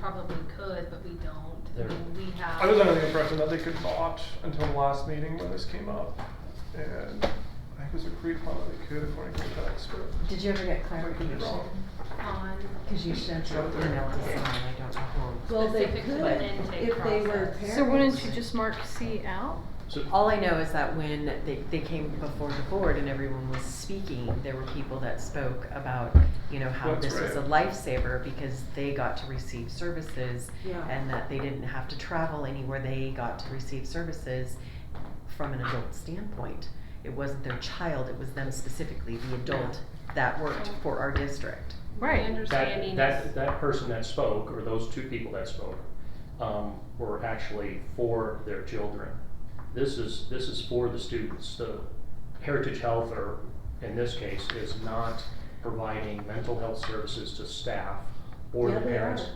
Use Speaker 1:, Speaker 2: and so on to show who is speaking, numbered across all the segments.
Speaker 1: probably could, but we don't. I
Speaker 2: There-
Speaker 1: mean, we have.
Speaker 3: I was under the impression that they could not until the last meeting when this came up. And I think it was agreed upon that they could according to the text, but.
Speaker 4: Did you ever get
Speaker 3: I could be
Speaker 4: clarification?
Speaker 3: wrong.
Speaker 1: On.
Speaker 4: Cause you sent your email to someone, I don't know who.
Speaker 1: Well, they Specific to could an intake
Speaker 4: if they were
Speaker 1: process.
Speaker 4: parents.
Speaker 5: So wouldn't you just mark C out?
Speaker 2: So,
Speaker 4: All I know is that when they, they came before the board and everyone was speaking, there were people that spoke about, you know, how
Speaker 3: That's
Speaker 4: this was a lifesaver because they got to receive services
Speaker 5: Yeah.
Speaker 4: and that they didn't have to travel anywhere, they got to receive services from an adult standpoint. It wasn't their child, it was them specifically, the adult that worked for our district.
Speaker 1: My
Speaker 5: Right.
Speaker 1: understanding
Speaker 2: that,
Speaker 1: is.
Speaker 2: that, that person that spoke, or those two people that spoke, um, were actually for their children. This is, this is for the students. The Heritage Health, or in this case, is not providing mental health services to staff or
Speaker 4: Yeah,
Speaker 2: the
Speaker 4: they
Speaker 2: parents.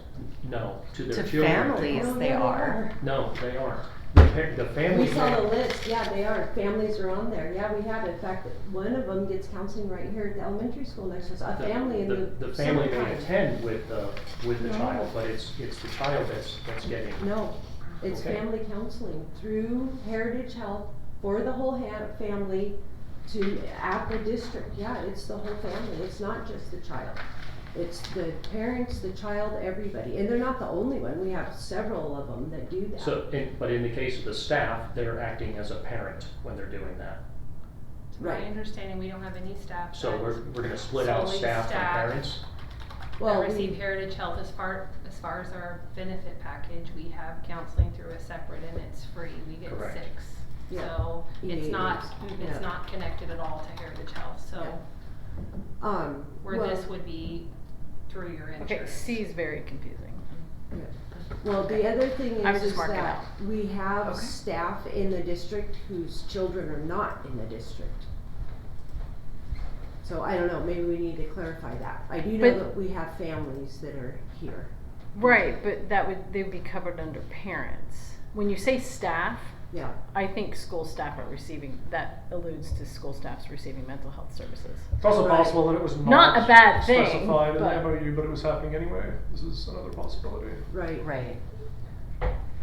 Speaker 2: No, to
Speaker 4: To
Speaker 2: their children.
Speaker 4: families,
Speaker 6: Oh,
Speaker 4: they are.
Speaker 2: No, they aren't. The par- the family.
Speaker 6: We saw the
Speaker 2: may-
Speaker 6: list, yeah, they are, families are on there, yeah, we have, in fact, one of them gets counseling right here at the elementary school next to us, a
Speaker 2: the-
Speaker 6: family in the.
Speaker 2: The family may
Speaker 6: summertime.
Speaker 2: attend with the, with the
Speaker 6: No.
Speaker 2: child, but it's, it's the child that's, that's getting.
Speaker 6: No, it's
Speaker 2: Okay.
Speaker 6: family counseling through Heritage Health for the whole ha- family to, at the district, yeah, it's the whole family, it's not just the child. It's the parents, the child, everybody, and they're not the only one, we have several of them that do that.
Speaker 2: So, in, but in the case of the staff, they're acting as a parent when they're doing that.
Speaker 1: My
Speaker 6: Right,
Speaker 1: understanding, we don't have any staff.
Speaker 2: So
Speaker 1: that-
Speaker 2: we're, we're gonna split out
Speaker 1: Solely
Speaker 2: staff from
Speaker 1: staff.
Speaker 2: parents.
Speaker 6: well,
Speaker 1: That receive
Speaker 6: we,
Speaker 1: Heritage Health as far, as far as our benefit package, we have counseling through a separate and it's free, we get
Speaker 2: Correct.
Speaker 1: six.
Speaker 6: Yeah.
Speaker 1: So, it's
Speaker 6: Yeah.
Speaker 1: not,
Speaker 6: Yeah.
Speaker 1: it's not connected at all to Heritage Health,
Speaker 6: Yeah.
Speaker 1: so
Speaker 6: um,
Speaker 1: where
Speaker 6: well-
Speaker 1: this would be through your insurance.
Speaker 5: Okay, C is very confusing.
Speaker 6: Well, the other thing
Speaker 5: I was
Speaker 6: is,
Speaker 5: just
Speaker 6: is
Speaker 5: marking
Speaker 6: that we have
Speaker 5: Okay.
Speaker 6: staff in the district whose children are not in the district. So I don't know, maybe we need to clarify that. I do know
Speaker 5: But-
Speaker 6: that we have families that are here.
Speaker 5: Right, but that would, they'd be covered under parents. When you say staff,
Speaker 6: Yeah,
Speaker 5: I think school staff are receiving, that alludes to school staffs receiving mental health services.
Speaker 3: It's also
Speaker 6: Right.
Speaker 3: possible that it was
Speaker 5: Not a
Speaker 3: not
Speaker 5: bad thing,
Speaker 3: specified in the
Speaker 5: but-
Speaker 3: MOU, but it was happening anyway. This is another possibility.
Speaker 6: right.
Speaker 4: Right.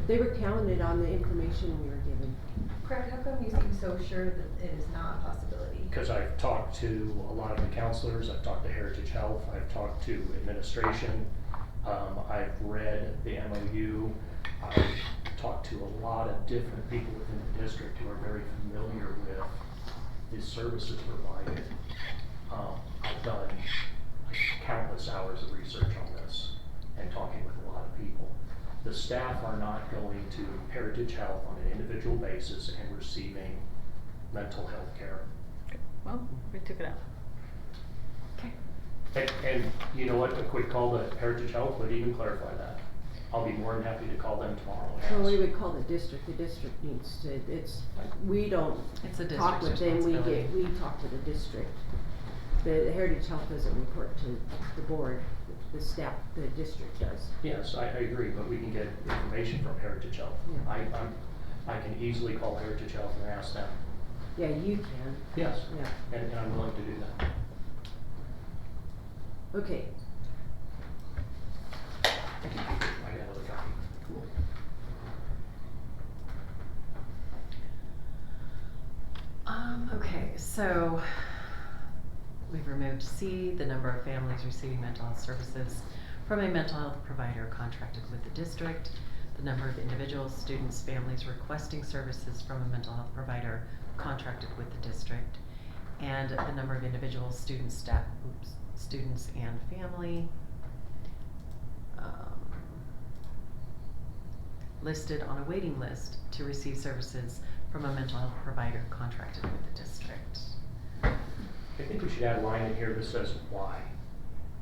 Speaker 6: They were counted on the information we were given.
Speaker 7: Craig, how come you seem so sure that it is not a possibility?
Speaker 2: Cause I've talked to a lot of the counselors, I've talked to Heritage Health, I've talked to administration. Um, I've read the MOU, I've talked to a lot of different people within the district who are very familiar with the services provided. Um, I've done countless hours of research on this and talking with a lot of people. The staff are not going to Heritage Health on an individual basis and receiving mental health care.
Speaker 5: Well, we took it out.
Speaker 2: And, and you know what, a quick call to Heritage Health would even clarify that. I'll be more than happy to call them tomorrow. and
Speaker 6: So
Speaker 2: ask.
Speaker 6: we would call the district, the district needs to, it's, we don't
Speaker 4: It's a
Speaker 6: talk
Speaker 4: district's
Speaker 6: with them, we
Speaker 4: responsibility.
Speaker 6: get, we talk to the district. The Heritage Health doesn't report to the board, the staff, the district does.
Speaker 2: Yes, I, I agree, but we can get information from Heritage Health.
Speaker 6: Yeah.
Speaker 2: I, I'm, I can easily call Heritage Health and ask them.
Speaker 6: Yeah, you can,
Speaker 2: Yes,
Speaker 6: yeah.
Speaker 2: and, and I'm willing to do that.
Speaker 6: Okay,
Speaker 2: I got another copy. Cool.
Speaker 4: Um, okay, so we've removed C, the number of families receiving mental health services from a mental health provider contracted with the district, the number of individuals, students, families requesting services from a mental health provider contracted with the district, and the number of individuals, students, staff, oops, students and family. um, Listed on a waiting list to receive services from a mental health provider contracted with the district.
Speaker 2: I think we should add a line in here that says why.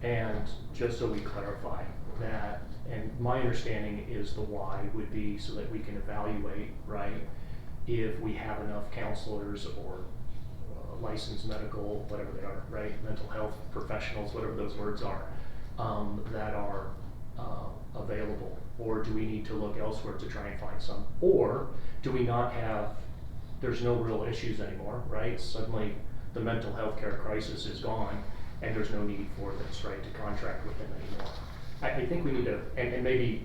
Speaker 2: And just so we clarify that, and my understanding is the why would be so that we can evaluate, right? If we have enough counselors or uh, licensed medical, whatever they are, right, mental health professionals, whatever those words are, um, that are, uh, available? Or do we need to look elsewhere to try and find some? Or do we not have, there's no real issues anymore, right? Suddenly, the mental health care crisis is gone, and there's no need for this, right, to contract with them anymore. I, I think we need to, and, and maybe